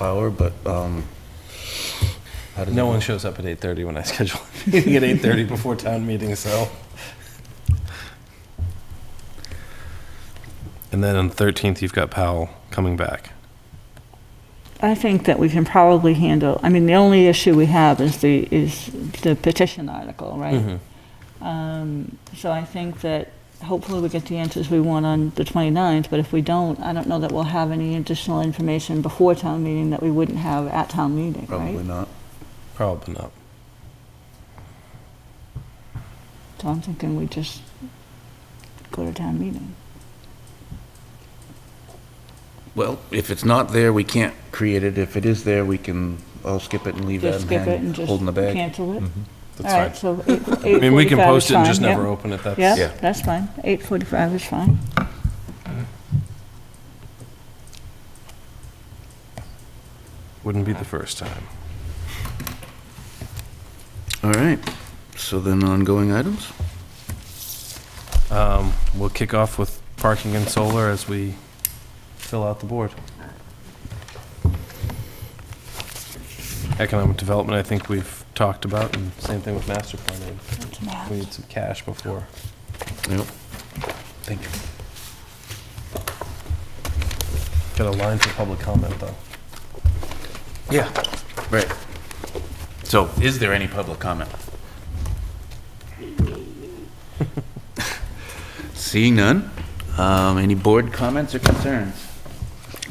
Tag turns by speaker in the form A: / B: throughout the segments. A: hour, but, um, how does
B: No
A: it
B: one
A: work?
B: shows up at 8:30 when I schedule a meeting at 8:30 before town meeting, so. And then on the 13th, you've got Powell coming back.
C: I think that we can probably handle, I mean, the only issue we have is the, is the petition article, right?
B: Mm-hmm.
C: Um, So I think that hopefully we get the answers we want on the 29th, but if we don't, I don't know that we'll have any additional information before town meeting that we wouldn't have at town meeting,
A: Probably
C: right?
A: not.
B: Probably not.
C: So I'm thinking we just go to town meeting.
A: Well, if it's not there, we can't create it. If it is there, we can all skip it and leave that
C: Just
A: and
C: skip it
A: hang,
C: and
A: holding the
C: just
A: bag.
C: cancel it.
B: Mm, That's
C: All
B: fine.
C: right, so eight- 8:45
B: I mean, we can post
C: is
B: it and just
C: fine, yep.
B: never open it. That's,
A: Yeah.
C: Yep, that's fine. 8:45 is fine.
B: wouldn't be the first time.
A: All right. So then ongoing items?
B: Um, We'll kick off with parking and solar as we fill out the board. Economic development, I think we've talked about, and same thing with master planning.
C: That's math.
B: We need some cash before.
A: Yep. Thank you.
B: Got a line for public comment, though.
A: Yeah, right. So is there any public comment? Seeing none. Um, Any board comments or concerns?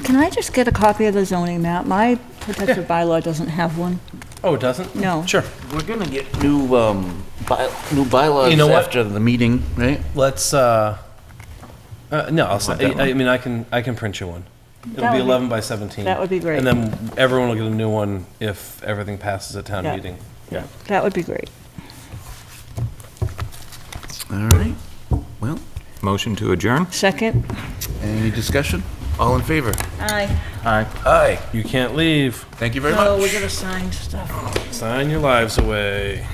C: Can I just get a copy of the zoning map? My protective bylaw doesn't have one.
B: Oh, it doesn't?
C: No.
B: Sure.
A: We're gonna get new, um, by, new bylaws
B: You know what?
A: after the meeting, right?
B: Let's, uh, uh, no, I'll,
A: want
B: si
A: that
B: I I mean, I can, I can print you one. It'll
C: That
B: be
C: would be-
B: 11 by 17.
C: that would be great.
B: And then everyone will get a new one if everything passes at town
C: Yeah.
B: meeting.
C: That would be great.
A: All right. Well,
D: Motion to adjourn?
C: Second?
A: any discussion? All in favor?
C: Aye.
A: Aye.
B: You can't leave.
A: Thank you very much.
C: Oh, we're gonna sign stuff.
B: Sign your lives away.